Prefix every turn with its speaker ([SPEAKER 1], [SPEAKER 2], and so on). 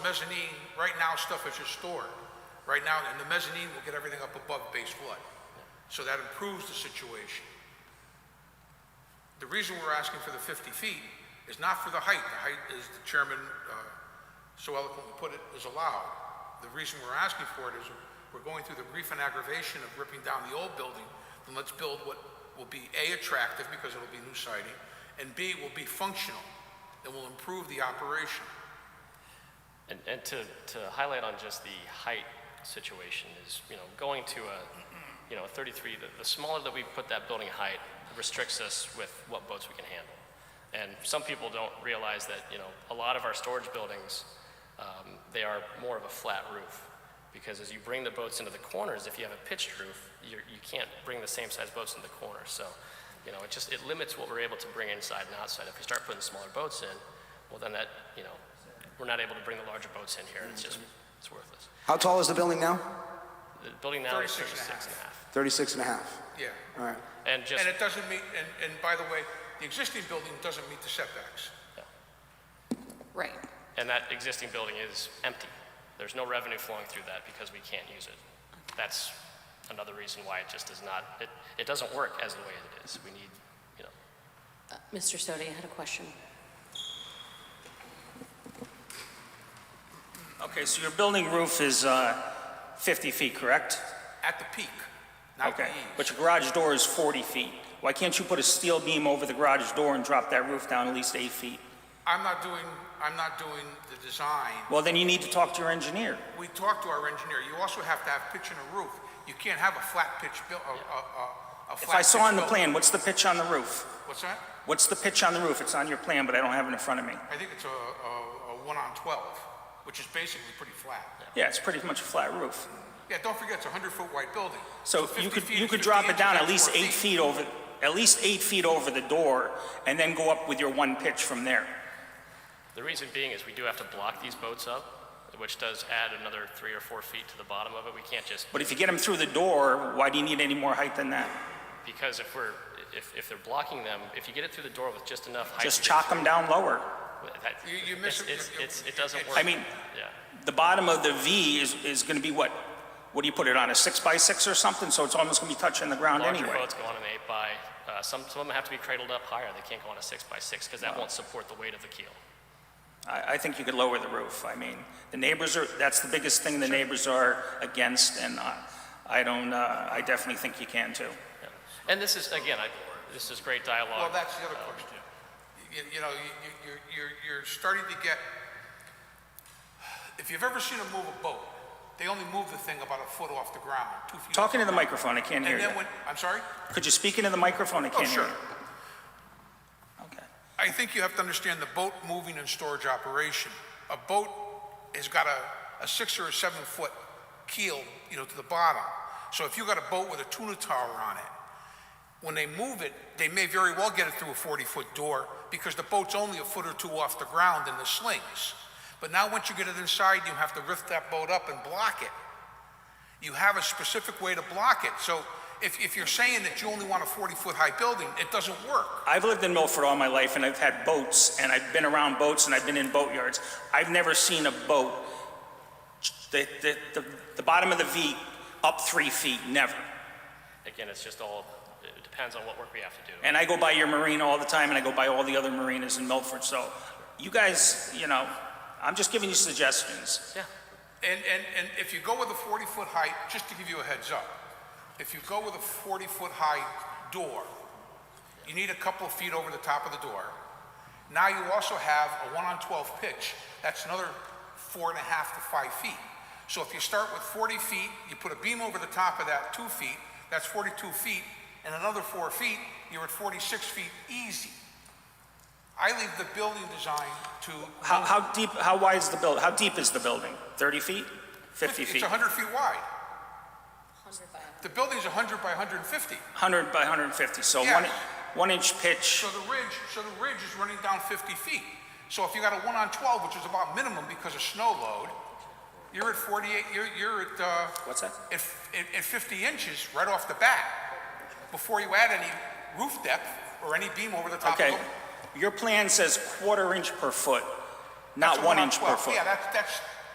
[SPEAKER 1] mezzanine, right now, stuff is just stored. Right now, and the mezzanine will get everything up above base flood. So that improves the situation. The reason we're asking for the 50 feet is not for the height. The height, as the chairman uh, so eloquently put it, is allowed. The reason we're asking for it is we're going through the grief and aggravation of ripping down the old building, then let's build what will be A, attractive because it'll be new siding, and B, will be functional and will improve the operation.
[SPEAKER 2] And, and to, to highlight on just the height situation is, you know, going to a, you know, a 33, the, the smaller that we put that building height restricts us with what boats we can handle. And some people don't realize that, you know, a lot of our storage buildings, um, they are more of a flat roof. Because as you bring the boats into the corners, if you have a pitched roof, you're, you can't bring the same size boats in the corner. So, you know, it just, it limits what we're able to bring inside and outside. If you start putting smaller boats in, well, then that, you know, we're not able to bring the larger boats in here, and it's just, it's worthless.
[SPEAKER 3] How tall is the building now?
[SPEAKER 2] The building now is
[SPEAKER 1] 36 and a
[SPEAKER 2] 36
[SPEAKER 1] half.
[SPEAKER 2] and a half.
[SPEAKER 3] 36 and a half.
[SPEAKER 1] Yeah.
[SPEAKER 3] All right.
[SPEAKER 2] And just,
[SPEAKER 1] And it doesn't meet, and, and by the way, the existing building doesn't meet the setbacks.
[SPEAKER 4] Right.
[SPEAKER 2] and that existing building is empty. There's no revenue flowing through that because we can't use it. That's another reason why it just does not, it, it doesn't work as the way it is. We need, you know,
[SPEAKER 4] Uh, Mr. Sodi, I had a question.
[SPEAKER 5] Okay, so your building roof is uh, 50 feet, correct?
[SPEAKER 1] At the peak, not the
[SPEAKER 5] Okay,
[SPEAKER 1] eaves.
[SPEAKER 5] but your garage door is 40 feet. Why can't you put a steel beam over the garage door and drop that roof down at least eight feet?
[SPEAKER 1] I'm not doing, I'm not doing the design.
[SPEAKER 5] Well, then you need to talk to your engineer.
[SPEAKER 1] We talked to our engineer, you also have to have pitch in a roof. You can't have a flat pitch buil, a, a, a, a
[SPEAKER 5] If
[SPEAKER 1] flat
[SPEAKER 5] I saw
[SPEAKER 1] pitch
[SPEAKER 5] on the
[SPEAKER 1] building.
[SPEAKER 5] plan, what's the pitch on the roof?
[SPEAKER 1] What's that?
[SPEAKER 5] What's the pitch on the roof? It's on your plan, but I don't have it in front of me.
[SPEAKER 1] I think it's a, a, a one on twelve, which is basically pretty flat.
[SPEAKER 5] Yeah, it's pretty much a flat roof.
[SPEAKER 1] Yeah, don't forget, it's a hundred foot wide building.
[SPEAKER 5] So
[SPEAKER 1] 50
[SPEAKER 5] you could,
[SPEAKER 1] feet
[SPEAKER 5] you
[SPEAKER 1] is
[SPEAKER 5] could
[SPEAKER 1] 50
[SPEAKER 5] drop it
[SPEAKER 1] inches,
[SPEAKER 5] down at
[SPEAKER 1] that's
[SPEAKER 5] least
[SPEAKER 1] four
[SPEAKER 5] eight feet over, at least eight feet over the door, and then go up with your one pitch from there.
[SPEAKER 2] the reason being is we do have to block these boats up, which does add another three or four feet to the bottom of it. We can't just,
[SPEAKER 5] But if you get them through the door, why do you need any more height than that?
[SPEAKER 2] because if we're, if, if they're blocking them, if you get it through the door with just enough height.
[SPEAKER 5] Just
[SPEAKER 2] to get
[SPEAKER 5] chalk them down lower.
[SPEAKER 2] through- that-
[SPEAKER 1] You- you
[SPEAKER 2] it's-
[SPEAKER 1] miss-
[SPEAKER 2] it's-
[SPEAKER 1] you-
[SPEAKER 2] it's-
[SPEAKER 1] you-
[SPEAKER 2] It doesn't work.
[SPEAKER 5] I mean,
[SPEAKER 2] Yeah.
[SPEAKER 5] the bottom of the V is, is going to be what? What do you put it on, a six by six or something? So it's almost going to be touching the ground
[SPEAKER 2] Larger
[SPEAKER 5] anyway.
[SPEAKER 2] boats go on an eight by, uh, some, some of them have to be cradled up higher, they can't go on a six by six, because that won't support the weight of the keel.
[SPEAKER 5] I, I think you could lower the roof. I mean, the neighbors are, that's the biggest thing the neighbors are against, and I, I don't, uh, I definitely think you can too.
[SPEAKER 2] Yeah. And this is, again, I, this is great dialogue.
[SPEAKER 1] Well, that's the other
[SPEAKER 2] Uh,
[SPEAKER 1] question. You, you know, you, you, you're, you're starting to get, if you've ever seen them move a boat, they only move the thing about a foot off the ground, two feet. off
[SPEAKER 5] Talking to the microphone, I can't hear
[SPEAKER 1] And
[SPEAKER 5] you.
[SPEAKER 1] then when, I'm sorry? Oh,
[SPEAKER 5] Could you speak into the microphone? I can't hear
[SPEAKER 1] sure.
[SPEAKER 5] you. Okay.
[SPEAKER 1] I think you have to understand the boat moving and storage operation. A boat has got a, a six or a seven foot keel, you know, to the bottom. So if you got a boat with a tuna tower on it, when they move it, they may very well get it through a 40 foot door because the boat's only a foot or two off the ground in the slings. But now once you get it inside, you have to lift that boat up and block it. You have a specific way to block it. So if, if you're saying that you only want a 40 foot high building, it doesn't work.
[SPEAKER 5] I've lived in Milford all my life, and I've had boats, and I've been around boats, and I've been in boatyards. I've never seen a boat, the, the, the, the bottom of the V up three feet, never.
[SPEAKER 2] Again, it's just all, it depends on what work we have to do.
[SPEAKER 5] And I go by your marina all the time, and I go by all the other marinas in Milford, so you guys, you know, I'm just giving you suggestions.
[SPEAKER 2] Yeah,
[SPEAKER 1] And, and, and if you go with a 40-foot height, just to give you a heads up, if you go with a 40-foot high door, you need a couple of feet over the top of the door. Now you also have a 1 on 12 pitch. That's another four and a half to five feet. So if you start with 40 feet, you put a beam over the top of that two feet, that's 42 feet, and another four feet, you're at 46 feet easy. I leave the building design to...
[SPEAKER 5] How, how deep, how wide is the build, how deep is the building? 30 feet? 50
[SPEAKER 1] It's
[SPEAKER 5] feet?
[SPEAKER 1] 100 feet wide. The building's 100 by 150,
[SPEAKER 5] 100 by 150, so
[SPEAKER 1] Yeah.
[SPEAKER 5] one, one inch pitch.
[SPEAKER 1] so the ridge, so the ridge is running down 50 feet. So if you got a 1 on 12, which is about minimum because of snow load, you're at 48, you're, you're at, uh,
[SPEAKER 5] What's that?
[SPEAKER 1] at, at- at 50 inches right off the bat, before you add any roof depth or any beam over the top of
[SPEAKER 5] Okay,
[SPEAKER 1] them.
[SPEAKER 5] your plan says quarter inch per foot,
[SPEAKER 1] That's
[SPEAKER 5] not
[SPEAKER 1] a
[SPEAKER 5] one
[SPEAKER 1] on
[SPEAKER 5] inch per
[SPEAKER 1] 12.
[SPEAKER 5] foot.
[SPEAKER 1] Yeah, that's, that's,